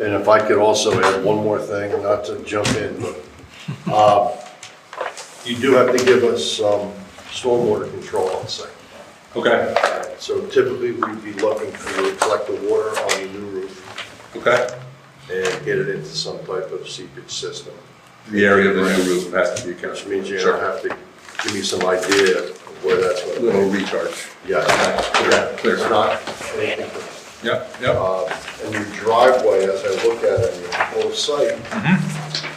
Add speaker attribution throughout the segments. Speaker 1: And if I could also add one more thing, not to jump in, but, um, you do have to give us some stormwater control on site.
Speaker 2: Okay,
Speaker 1: So typically, we'd be looking to collect the water on your new roof
Speaker 2: okay.
Speaker 1: and get it into some type of seepage system,
Speaker 2: The area of the new roof has to be
Speaker 1: which
Speaker 2: accounted
Speaker 1: means
Speaker 2: for.
Speaker 1: you're gonna
Speaker 2: Sure.
Speaker 1: have to give me some idea of where that's gonna
Speaker 2: Little
Speaker 1: be.
Speaker 2: recharge.
Speaker 1: Yeah,
Speaker 2: Okay, Clear,
Speaker 1: it's
Speaker 2: clear.
Speaker 1: not anything.
Speaker 2: Yep, yep.
Speaker 1: Uh, And your driveway, as I look at it, your whole site,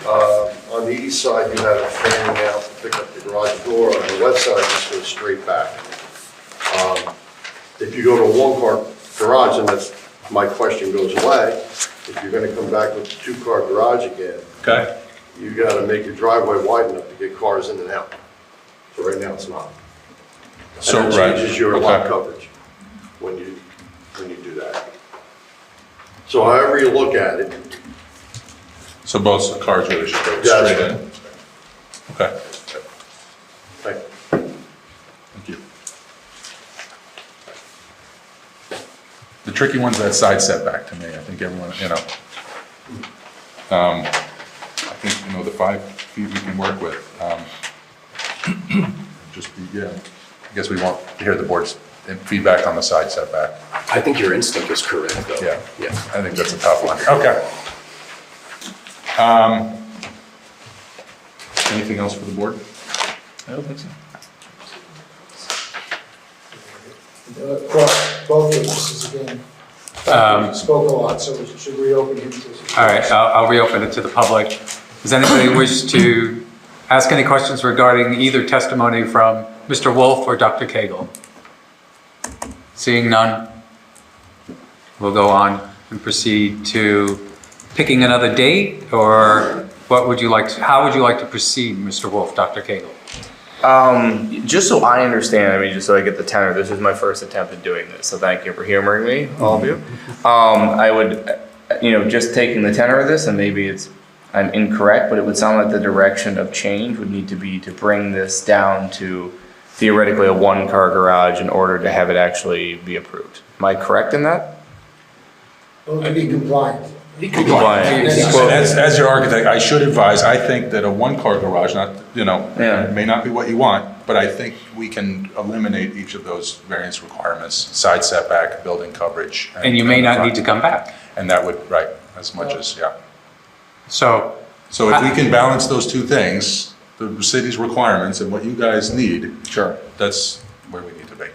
Speaker 1: uh, on the east side, you have a fan out to pick up the garage door. On the west side, it just goes straight back. Um, If you go to a one-car garage, and that's, my question goes away, if you're gonna come back with a two-car garage again,
Speaker 2: Okay,
Speaker 1: you gotta make your driveway wide enough to get cars in and out. So right now, it's not.
Speaker 2: So,
Speaker 1: And it
Speaker 2: right,
Speaker 1: changes your lot
Speaker 2: okay.
Speaker 1: coverage when you, when you do that. So however you look at it,
Speaker 2: so both the cars really should go
Speaker 1: Yeah, that's
Speaker 2: straight in?
Speaker 1: right.
Speaker 2: Okay,
Speaker 1: like,
Speaker 2: thank you. The tricky one's that side setback to me. I think everyone, you know. Um, I think, you know, the five feet we can work with. um, Just, be- yeah, I guess we won't hear the board's feedback on the side setback.
Speaker 3: I think your instinct is correct, though.
Speaker 2: Yeah.
Speaker 3: Yeah.
Speaker 2: I think that's a tough one. Okay. Um, Anything else for the board?
Speaker 4: I don't think so.
Speaker 5: Both witnesses again spoke a lot, so we should reopen him. to-
Speaker 4: Um, All right, I'll I'll reopen it to the public. Does anybody wish to ask any questions regarding either testimony from Mr. Wolf or Dr. Cagle? Seeing none, we'll go on and proceed to picking another date, or what would you like, to- how would you like to proceed, Mr. Wolf, Dr. Cagle?
Speaker 6: Um, just so I understand, I mean, just so I get the tenor, this is my first attempt at doing this, so thank you for humoring me, all of you. Um, I would, uh, you know, just taking the tenor of this, and maybe it's, I'm incorrect, but it would sound like the direction of change would need to be to bring this down to theoretically a one-car garage in order to have it actually be approved. Am I correct in that?
Speaker 5: Both to be compliant.
Speaker 6: Compliant.
Speaker 4: Oh,
Speaker 2: And As, as your architect, I should advise, I think that a one-car garage, not, you know,
Speaker 6: Yeah.
Speaker 2: may not be what you want, but I think we can eliminate each of those variance requirements, side setback, building coverage.
Speaker 4: And you may not need to come back.
Speaker 2: And that would, right, as much as, yeah.
Speaker 4: So,
Speaker 2: So if we can balance those two things, the city's requirements and what you guys need.
Speaker 6: Sure.
Speaker 2: That's where we need to be.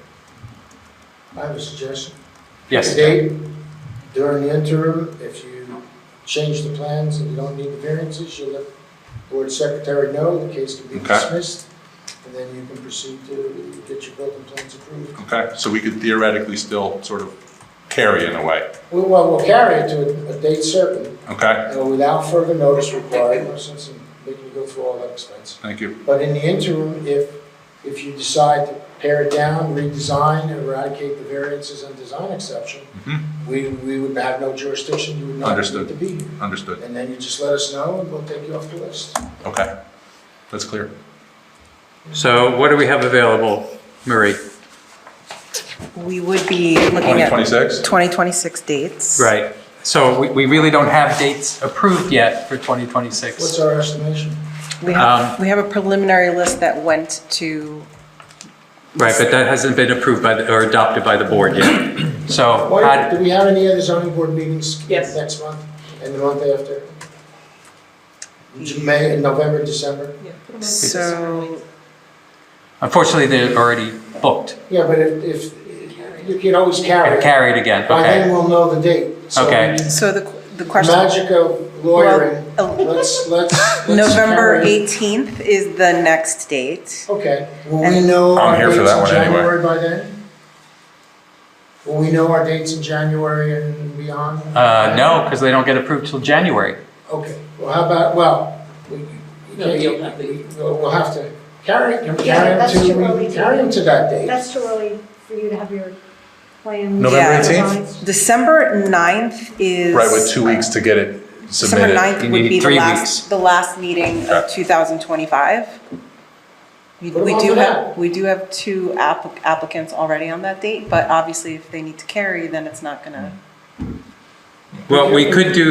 Speaker 5: I have a suggestion.
Speaker 4: yes,
Speaker 5: Today, during the interim, if you change the plans and you don't need the variances, you let board secretary know, the case can be
Speaker 2: Okay.
Speaker 5: dismissed, and then you can proceed to get your building plans approved.
Speaker 2: Okay, so we could theoretically still sort of carry in a way,
Speaker 5: Well, Well, we'll carry it to a- a date certain,
Speaker 2: okay?
Speaker 5: uh, without further notice required, no sense in making you go through all that expense.
Speaker 2: Thank you.
Speaker 5: But in the interim, if, if you decide to pare it down, redesign, eradicate the variances and design exception,
Speaker 2: Mhm.
Speaker 5: we, we would have no jurisdiction, you would not
Speaker 2: Understood.
Speaker 5: need to be here.
Speaker 2: Understood.
Speaker 5: And then you just let us know and we'll take you off the list.
Speaker 2: Okay, that's clear.
Speaker 4: so what do we have available, Marie?
Speaker 7: We would be looking at
Speaker 2: 2026?
Speaker 7: 2026 dates.
Speaker 4: Right, so we- we really don't have dates approved yet for 2026.
Speaker 5: What's our estimation?
Speaker 7: We
Speaker 4: Um,
Speaker 7: have, we have a preliminary list that went to,
Speaker 4: Right, but that hasn't been approved by, the or adopted by the board yet. So, uh,
Speaker 5: Why,
Speaker 4: Oh, had-
Speaker 5: do we have any other zoning board meetings?
Speaker 7: Yes.
Speaker 5: Next month and the month after? May, November, December?
Speaker 7: so,
Speaker 4: unfortunately, they're already booked
Speaker 5: Yeah, but if, if, you can always carry
Speaker 4: and
Speaker 5: it.
Speaker 4: carried again,
Speaker 5: By then
Speaker 4: okay?
Speaker 5: we'll know the date. So
Speaker 4: Okay.
Speaker 7: so the, the question,
Speaker 5: Magic of lawyering,
Speaker 7: Well, a-
Speaker 5: let's, let's. let's
Speaker 7: November
Speaker 5: carry-
Speaker 7: 18th is the next date.
Speaker 5: Okay, will we
Speaker 7: And-
Speaker 5: know
Speaker 2: I'm
Speaker 5: our
Speaker 2: here
Speaker 5: dates
Speaker 2: for
Speaker 5: in
Speaker 2: that one anyway.
Speaker 5: January by then? Will we know our dates in January and beyond?
Speaker 4: Uh, no, because they don't get approved till January.
Speaker 5: Okay, well, how about, well, we, we can't- we- we'll we'll have to carry, can we
Speaker 8: Yeah,
Speaker 5: carry them
Speaker 8: that's too
Speaker 5: to,
Speaker 8: early
Speaker 5: we
Speaker 8: to-
Speaker 5: carry them to that date?
Speaker 8: That's too early for you to have your plans.
Speaker 2: November
Speaker 7: Yeah.
Speaker 2: 18th?
Speaker 7: December 9th is.
Speaker 2: Right, with two weeks to get it
Speaker 7: December
Speaker 2: submitted.
Speaker 7: 9th
Speaker 4: You
Speaker 7: would
Speaker 4: need
Speaker 7: be the
Speaker 4: three weeks.
Speaker 7: last, the last meeting
Speaker 2: Okay.
Speaker 7: of 2025. We
Speaker 5: Put 'em
Speaker 7: we
Speaker 5: on
Speaker 7: do
Speaker 5: for
Speaker 7: have,
Speaker 5: that.
Speaker 7: we do have two app- applicants already on that date, but obviously if they need to carry, then it's not gonna.
Speaker 4: Well, we could do